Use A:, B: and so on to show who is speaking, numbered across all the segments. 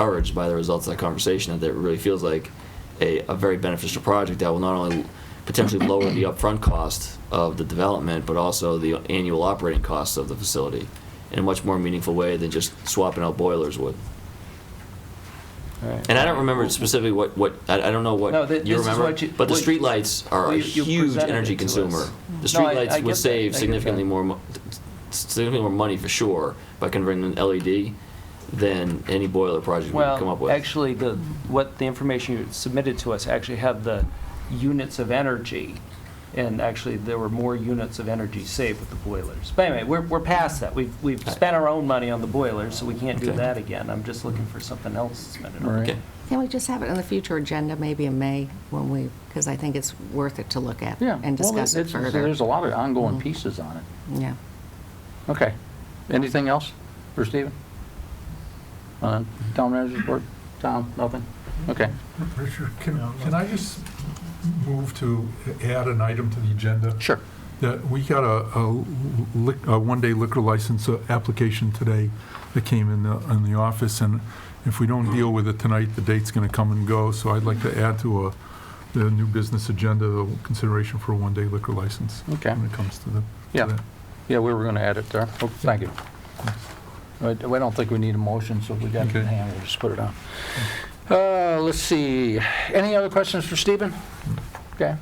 A: encouraged by the results of that conversation that it really feels like a, a very beneficial project that will not only potentially lower the upfront cost of the development, but also the annual operating costs of the facility in a much more meaningful way than just swapping out boilers would. And I don't remember specifically what, what, I, I don't know what
B: No, thi-
A: you
B: this is
A: remember,
B: what you-
A: but the
B: what-
A: streetlights are
B: well,
A: a
B: you- you
A: huge
B: presented
A: energy
B: it to us.
A: consumer. The
B: No, I-
A: streetlights
B: I get that,
A: would
B: I
A: save
B: get
A: significantly
B: that.
A: more, mo- significantly more money for sure by converting an LED than any boiler project we could come up with.
B: Well, actually, the, what the information you submitted to us actually had the units of energy, and actually, there were more units of energy saved with the boilers. But anyway, we're, we're past that. We've, we've
A: Right.
B: spent our own money on the boilers, so we can't do
A: Okay.
B: that again. I'm just looking for something else to spend it on.
C: Right.
A: Okay.
D: Can we just have it on the future agenda, maybe in May, when we, because I think it's worth it to look at
C: Yeah.
D: and
C: well,
D: discuss it
C: it's-
D: further.
C: There's a lot of ongoing
D: Mhm.
C: pieces on it.
D: Yeah.
C: Okay. Anything else for Stephen? Uh, Town manager's report? Tom, nothing? Okay.
E: Richard, can, can I just move to add an item to the agenda?
C: Sure.
E: That we got a, a lic- a one-day liquor license uh, application today that came in the, in the office, and if we don't deal with it tonight, the date's gonna come and go, so I'd like to add to a, the new business agenda, the consideration for a one-day liquor license.
C: Okay.
E: When it comes to the. to
C: Yeah.
E: that.
C: Yeah, we were going to add it there. Oh, Thank you. I I don't think we need a motion, so if we got it in
E: Okay.
C: hand, we'll just put it on. Uh, Let's see, any other questions for Stephen? Okay,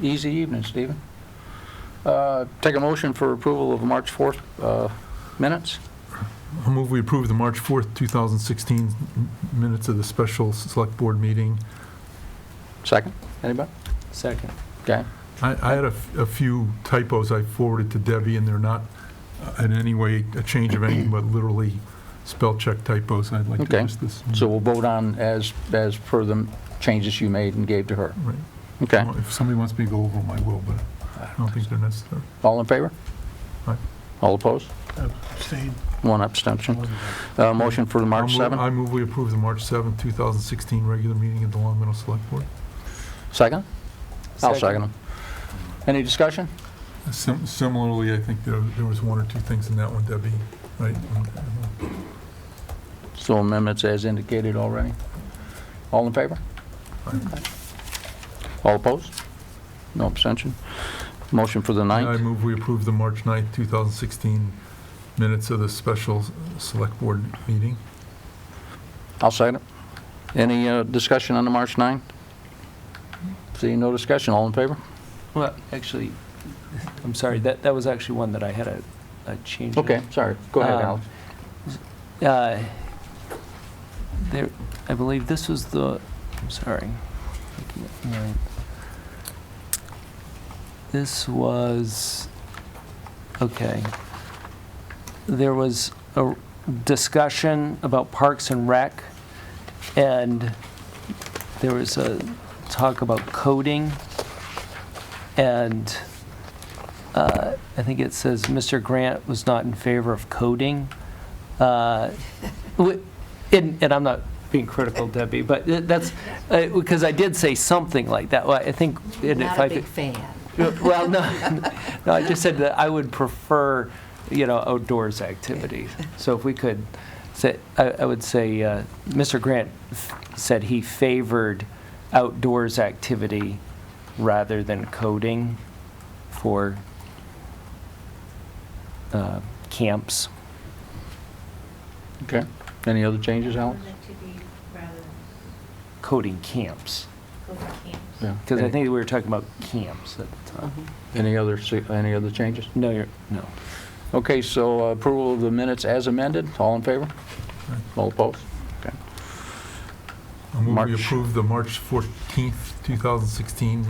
C: easy evening, Stephen. Uh, Take a motion for approval of March 4th uh, minutes?
E: I move we approve the March 4th, 2016 minutes of the special select board meeting.
C: Second, anybody?
B: Second.
C: Okay,
E: I, I had a, f- a few typos I forwarded to Debbie, and they're not uh, in any way a change of anything, but literally spell check typos, and I'd like to
C: Okay.
E: just this.
C: so we'll vote on as, as per the changes you made and gave to her.
E: Right.
C: Okay,
E: Well, If somebody wants me to go over them, I will, but I don't think they're necessary.
C: all in favor?
E: Aye.
C: All opposed?
F: Abstain.
C: One abstention. Uh, Motion for the March
E: I move-
C: 7th?
E: I move we approve the March 7th, 2016 regular meeting of the Long Meadow Select Board.
C: Second? I'll
B: Second.
C: second them. Any discussion?
E: Sim- Similarly, I think there, there was one or two things in that one, Debbie, right?
C: So amendments as indicated already. All in favor?
E: Aye.
C: All opposed? No abstention? Motion for the
E: I
C: 9th?
E: move we approve the March 9th, 2016 minutes of the special s- select board meeting.
C: I'll second it. Any uh, discussion on the March 9th? Seeing no discussion, all in favor?
B: Well, actually, I'm sorry, that, that was actually one that I had a, a change. in.
C: Okay, sorry. Go ahead,
B: Um,
C: Alex.
B: Uh, There, I believe this was the, I'm sorry. Looking at mine. This was, okay. There was a discussion about Parks and Rec, and there was a talk about coding, and uh, I think it says Mr. Grant was not in favor of coding. Uh, wi- And, and I'm not being critical, Debbie, but th- that's, uh, because I did say something like that. Well, I think. and if
D: Not
B: I
D: a
B: could-
D: big fan.
B: well, no, no, I just said that I would prefer, you know, outdoors activities. So if we could, say, I, I would say, uh, Mr. Grant f- said he favored outdoors activity rather than coding for, uh, camps.
C: Okay. Any other changes, Alex?
G: To be rather
B: Coding camps,
G: go for camps.
C: Yeah.
B: because I think we were talking about camps at the time.
C: Any other, any other changes?
B: No, you're, no.
C: Okay, so uh, approval of the minutes as amended, all in favor? All opposed? Okay.
E: I move
C: March.
E: we approve the March 14th, 2016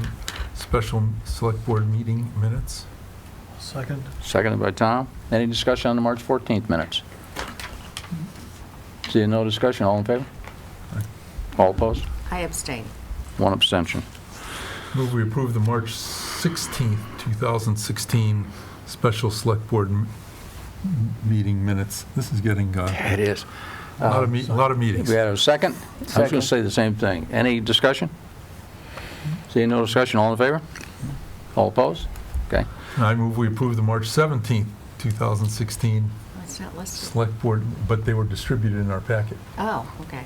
E: special select board meeting minutes.
F: Second.
C: Seconded by Tom. Any discussion on the March 14th minutes? Seeing no discussion, all in favor? All opposed?
D: I abstain.
C: One abstention.
E: Move we approve the March 16th, 2016 special select board m- m- meeting minutes. This is getting uh,
C: It is. Uh,
E: a lot of, me- a lot of
C: We
E: meetings.
C: had a second. I was going
B: Second.
C: to say the same thing. Any discussion? Seeing no discussion, all in favor? All opposed? Okay.
E: And I move we approve the March 17th, 2016
D: It's not listed.
E: select board, but they were distributed in our packet.
D: Oh, okay.